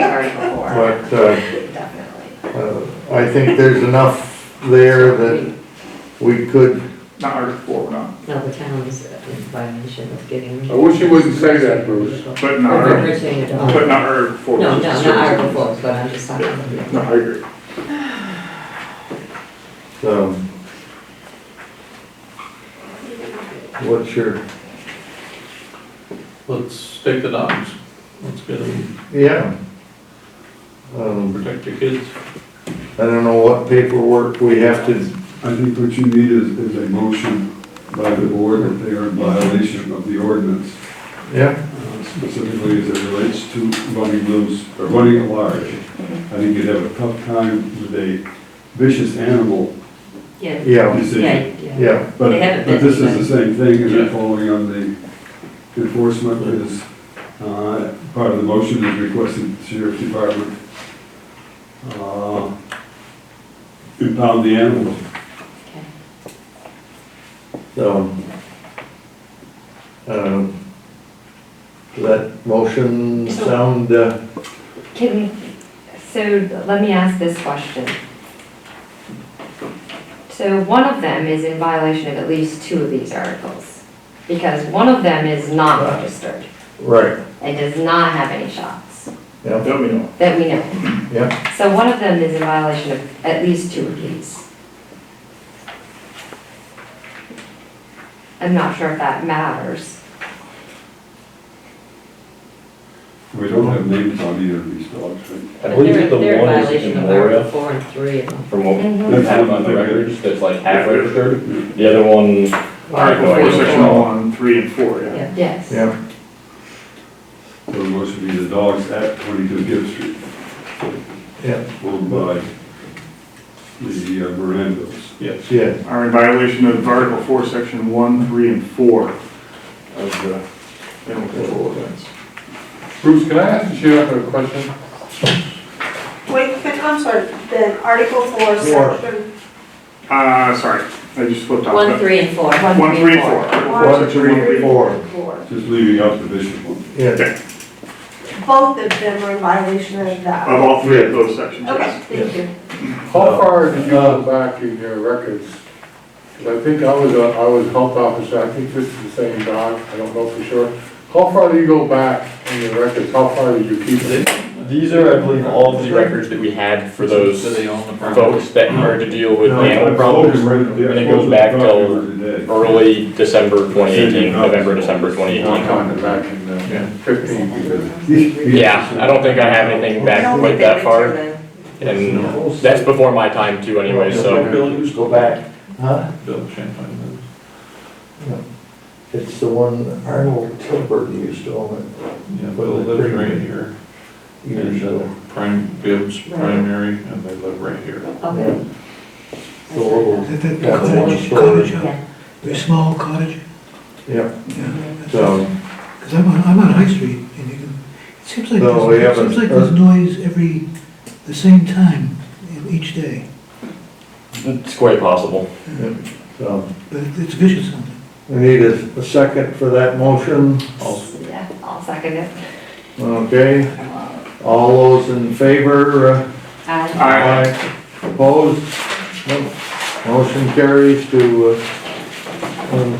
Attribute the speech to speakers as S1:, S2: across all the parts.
S1: it before.
S2: But, uh,
S1: Definitely.
S2: Uh, I think there's enough there that we could,
S3: Not Article four, we're not,
S4: No, the town is in violation of getting.
S5: I wish you wouldn't say that, Bruce.
S3: but
S4: Or
S3: not, Article-
S4: reaching it all.
S3: but not Article four.
S4: No, no,
S3: which
S4: not
S3: is services.
S4: Article four, but I'm just talking about.
S3: No, I agree.
S2: um, what's your,
S6: Let's take the dogs. Let's get them,
S2: yeah. Um,
S6: protect your kids.
S2: I don't know what paperwork we have to,
S7: I think what you need is, is a motion by the board that they are in violation of the ordinance,
S2: yeah,
S7: uh, specifically as it relates to running loose, or running at large. I think you'd have a tough time with a vicious animal
S4: Yeah.
S2: yeah,
S7: decision.
S4: Yeah, yeah.
S2: yeah.
S7: But,
S4: They haven't
S7: but
S4: been
S7: this is the same thing, and
S6: Yeah.
S7: then following on the enforcement is, uh, part of the motion is requesting the sheriff's department, uh, impound the animal.
S4: Okay.
S2: So, um, that motion sound, uh,
S1: Can, so let me ask this question. So one of them is in violation of at least two of these articles, because one of them is not registered
S2: right,
S1: and does not have any shots
S2: yeah,
S3: That we know.
S1: that we know. of.
S2: yeah,
S1: So one of them is in violation of at least two of these. I'm not sure if that matters.
S7: We don't have names on either of these dogs, right?
S8: I believe that the
S4: They're-
S8: one
S4: They're in
S8: is
S4: violation
S8: in
S4: of Article
S8: Moria,
S4: four and three and
S8: from what we
S1: Mhm.
S8: have on the records, that's like half registered. The other one,
S3: Article four, section one, three and four, yeah.
S4: Yeah.
S1: Yes.
S2: yeah,
S7: So the motion would be the dogs at 22 Gibbs Street,
S2: yeah,
S7: owned by the uh, Mirandos.
S3: Yes.
S2: yeah.
S3: Are in violation of Article four, section one, three and four of the animal control ordinance.
S5: Bruce, can I ask the sheriff a question?
S9: Wait, but I'm sorry, then Article four,
S2: Four.
S9: section
S3: Uh, sorry, I just flipped off.
S4: One,
S3: that.
S4: three and four.
S3: One, three and four. Article
S2: One,
S3: four, section
S2: two, four,
S9: four.
S7: Just leaving out the bishop one.
S2: yeah,
S9: Both of them are in violation of that.
S3: Of all three of those sections,
S9: Okay,
S3: yes.
S9: thank you.
S5: How far did you go back in your records? 'Cause I think I was, a- I was health officer, I think this is the same dog, I don't know for sure. How far do you go back in your records, how far did you keep it?
S8: these are, I believe, all of the records that we had for those
S6: Do they own the property?
S8: folks that were to deal with
S7: No,
S8: animal
S7: I've
S8: problems.
S7: spoken right- yeah,
S8: and it goes
S7: I've
S8: back
S7: spoken
S8: till
S7: about it today.
S8: Early December 2018, November, December
S7: I'm
S8: 2018.
S7: talking back in
S6: uh,
S2: Yeah.
S7: the 15 because
S8: Yeah, I don't think I have anything back quite that far. And that's before my time too anyway, so.
S6: Bill, you just go
S2: back. huh?
S6: Bill Champlin lives.
S2: It's the one Arnold Tilburg used to own it.
S6: Yeah, Bill lives right here.
S2: years
S6: And
S2: ago.
S6: uh, Prime, Gibbs Primary, and they live right here.
S4: Okay.
S2: The little-
S10: That
S2: Yeah, the one
S10: cottage,
S2: story.
S10: cottage, uh, the small cottage,
S2: Yeah,
S10: yeah.
S2: so,
S10: Because I'm on, I'm on High Street, and you can, it seems like,
S2: No, we
S10: there's- it
S2: haven't-
S10: seems like there's noise every, the same time in each day,
S8: It's quite possible.
S2: so,
S10: but it's vicious, sounding.
S2: we need a, a second for that motion,
S1: Yeah, I'll second it.
S2: okay? All those in favor? uh,
S1: Aye.
S3: Aye.
S2: Opposed? No. Motion carries to, uh, um,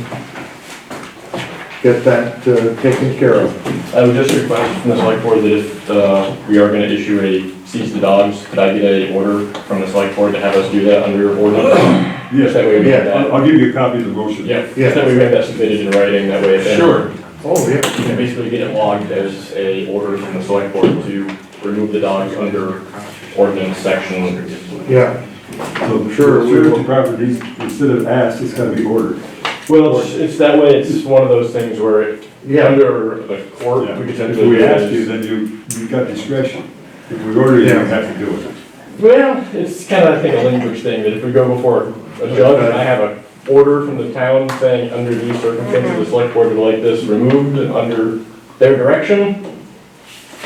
S2: get that uh, taken care of.
S8: I would just request from the select board that if uh, we are going to issue a seize the dogs, could I get a order from the select board to have us do that under ordinance? Just
S7: Yes,
S8: that way we
S2: Yeah.
S8: have
S7: I'll
S8: that,
S7: I'll give you a copy of the motion.
S8: yeah, just that way we have that submitted in writing, that way then.
S6: Sure.
S2: Oh,
S8: You can
S2: yeah.
S8: basically get it logged as a order from the select board to remove the dogs under ordinance section.
S2: Yeah,
S7: So the
S2: Sure, we will.
S7: sheriff's department, he's- instead of asked, it's gotta be ordered.
S8: Well, it's, it's that way, it's one of those things where it-
S2: yeah,
S8: under the court, we could
S7: If
S8: technically.
S7: we
S8: do
S7: ask
S8: this.
S7: you, then you, you've got discretion. If we order you, you have to do it.
S8: Well, it's kind of, I think, a language thing, that if we go before a judge and I have an order from the town saying, under these circumstances, the select board would like this removed and under their direction,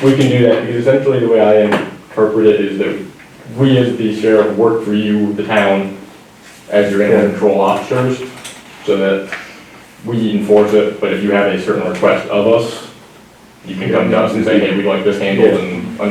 S8: we can do that, because essentially the way I interpret it is that we as the sheriff work for you, the town, as your animal control officers, so that we enforce it, but if you have a certain request of us, you can come to us and say, hey, we'd like this handled and under